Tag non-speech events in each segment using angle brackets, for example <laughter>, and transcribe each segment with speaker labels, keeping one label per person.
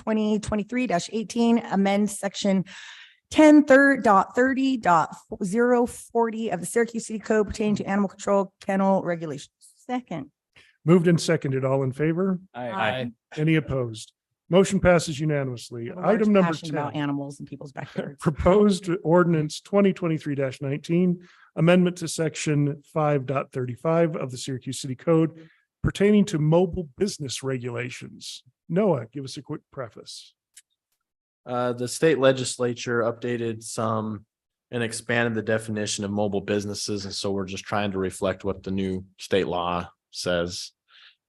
Speaker 1: twenty twenty-three eighteen, amend section ten third dot thirty dot zero forty of the Syracuse City Code pertaining to animal control kennel regulations. Second.
Speaker 2: Moved and seconded. All in favor?
Speaker 1: Aye.
Speaker 2: Any opposed? Motion passes
Speaker 1: I
Speaker 2: unanimously.
Speaker 1: have a large
Speaker 2: Item number
Speaker 1: passion About
Speaker 2: ten.
Speaker 1: animals in people's
Speaker 2: <laughs>
Speaker 1: backyards.
Speaker 2: Proposed ordinance twenty twenty-three nineteen, amendment to section 5.35 of the Syracuse City Code pertaining to mobile business regulations. Noah, give us a quick preface.
Speaker 3: Uh, the state legislature updated some and expanded the definition of mobile businesses, and so we're just trying to reflect what the new state law says.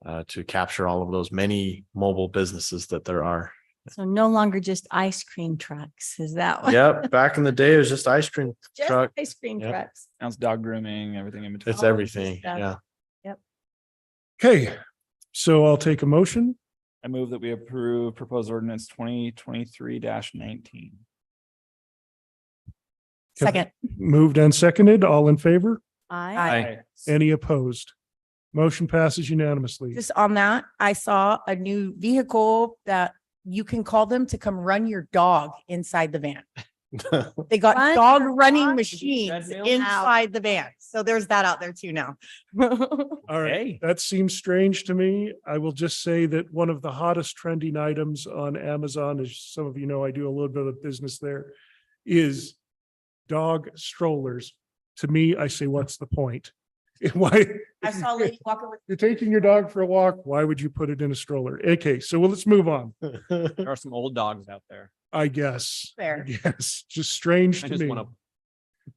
Speaker 3: Uh, to capture all of those many mobile businesses that there are.
Speaker 4: So no longer just ice cream trucks, is that? what-
Speaker 3: Yep, back in the day, it was just ice cream
Speaker 4: Just
Speaker 3: truck.
Speaker 4: Ice cream
Speaker 3: Yep.
Speaker 4: trucks.
Speaker 5: Sounds dog grooming, everything in between.
Speaker 3: It's
Speaker 4: all of this
Speaker 3: everything,
Speaker 4: stuff.
Speaker 3: yeah.
Speaker 2: Okay, so I'll take a motion.
Speaker 5: I move that we approve proposed ordinance twenty twenty-three nineteen.
Speaker 1: Second.
Speaker 2: Moved and seconded. All in favor?
Speaker 4: I,
Speaker 1: Aye.
Speaker 2: Any opposed? Motion passes unanimously.
Speaker 1: Just on that, I saw a new vehicle that you can call them to come run your dog inside the van.
Speaker 3: <laughs>
Speaker 1: They got
Speaker 4: Run
Speaker 1: dog
Speaker 4: your
Speaker 1: running
Speaker 4: dog?
Speaker 1: machines
Speaker 5: Treadmill?
Speaker 1: inside the van. So there's that out there too now. <laughs>
Speaker 2: All right. That seems strange to me. I will just say that one of the hottest trending items on Amazon, as some of you know, I do a little bit of business there, is dog strollers. To me, I say, what's the point? <laughs> Why?
Speaker 1: I saw a lady walking with,
Speaker 2: You're taking your dog for a walk. Why would you put it in a stroller? Okay, so well, let's move on,
Speaker 5: <laughs> There are some old dogs out there.
Speaker 2: I guess.
Speaker 1: Fair.
Speaker 2: <laughs> Yes, just strange
Speaker 3: I
Speaker 2: to
Speaker 3: just
Speaker 2: me.
Speaker 3: wanna-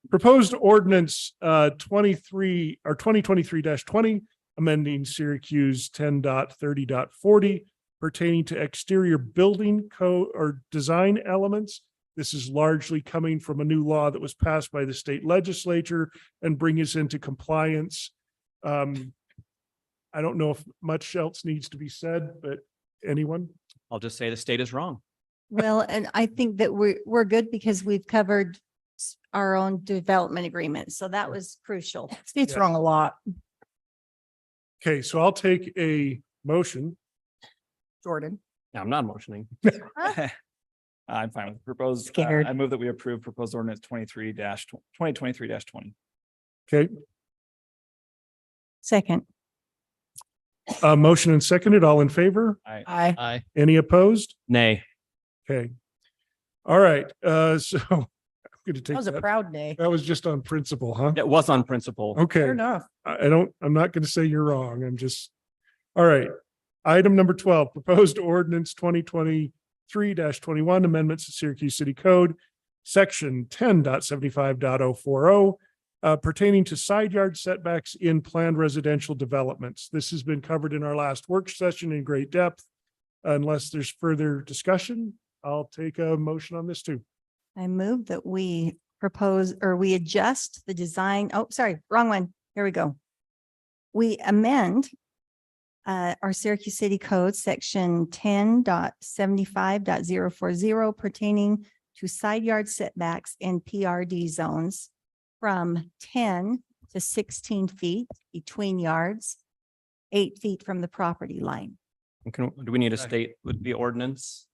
Speaker 2: Proposed ordinance uh twenty-three or twenty twenty-three twenty, amending Syracuse 10.30.40 pertaining to exterior building code or design elements. This is largely coming from a new law that was passed by the state legislature and bring us into compliance. Um, I don't know if much else needs to be said, but anyone?
Speaker 6: I'll just say the state is wrong.
Speaker 4: well, and I think that we're, we're good because we've covered s- our own development agreement. So that was crucial.
Speaker 1: state's
Speaker 2: Yeah.
Speaker 1: wrong a lot,
Speaker 2: Okay, so I'll take a motion.
Speaker 1: Jordan.
Speaker 6: Now, I'm not motioning.
Speaker 5: <laughs> I'm fine with proposed. uh,
Speaker 1: Scared.
Speaker 5: I move that we approve proposed ordinance twenty-three twenty twenty-three twenty.
Speaker 2: Okay,
Speaker 4: Second.
Speaker 2: uh, motion and seconded, all in favor?
Speaker 1: I,
Speaker 6: Aye.
Speaker 2: Any opposed?
Speaker 6: Nay.
Speaker 2: Okay. All right, uh, <laughs> so I'm gonna
Speaker 1: that
Speaker 2: take
Speaker 1: was a
Speaker 2: that.
Speaker 1: proud day.
Speaker 2: That was just on principle, huh?
Speaker 6: It was on principle.
Speaker 1: Fair
Speaker 2: Okay,
Speaker 1: enough.
Speaker 2: I I don't, I'm not gonna say you're wrong. I'm just, all right. Item number twelve, proposed ordinance twenty twenty-three twenty-one amendments to Syracuse City Code, section 10.75.040, uh, pertaining to side yard setbacks in planned residential developments. This has been covered in our last work session in great depth. Unless there's further discussion, I'll take a motion on this too.
Speaker 4: I move that we propose or we adjust the design. Oh, sorry, wrong one. Here we go. We amend uh, our Syracuse City Code, section 10.75.040 pertaining to side yard setbacks in PRD zones from ten to sixteen feet between yards, eight feet from the property line,
Speaker 6: Can, do we need to state with the ordinance?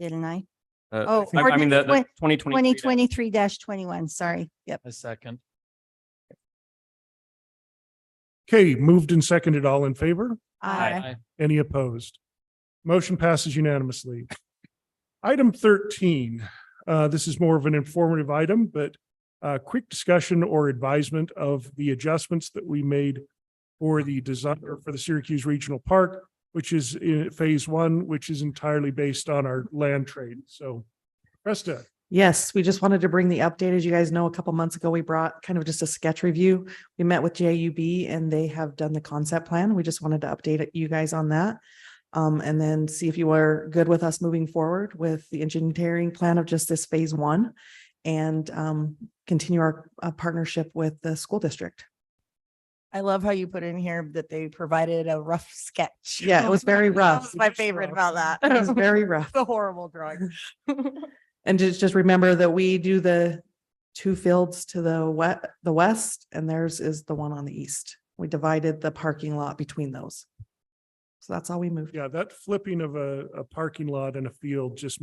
Speaker 4: didn't I?
Speaker 6: Uh,
Speaker 4: Oh,
Speaker 6: I I mean, the, the
Speaker 4: ordinance
Speaker 6: twenty
Speaker 4: Twenty twenty-three twenty-one, sorry. Yep.
Speaker 3: A second.
Speaker 2: Okay, moved and seconded, all in favor?
Speaker 1: Aye.
Speaker 2: Any opposed? Motion passes unanimously. Item thirteen, uh, this is more of an informative item, but uh, quick discussion or advisement of the adjustments that we made for the design, or for the Syracuse Regional Park, which is in phase one, which is entirely based on our land trade. So Krista,
Speaker 7: Yes, we just wanted to bring the update. As you guys know, a couple months ago, we brought kind of just a sketch review. We met with JUB and they have done the concept plan. We just wanted to update it- you guys on that. Um, and then see if you are good with us moving forward with the engineering plan of just this phase one and um, continue our uh, partnership with the school district.
Speaker 1: I love how you put in here that they provided a rough sketch.
Speaker 7: Yeah, it was
Speaker 1: <laughs>
Speaker 7: very
Speaker 1: That
Speaker 7: rough.
Speaker 1: was my favorite about
Speaker 7: <laughs>
Speaker 1: that.
Speaker 7: It
Speaker 1: <laughs>
Speaker 7: was very rough.
Speaker 1: The horrible drawing.
Speaker 7: And just, just remember that we do the two fields to the wet, the west, and theirs is the one on the east. We divided the parking lot between those. So that's all we moved.
Speaker 2: Yeah, that flipping of a, a parking lot and a field just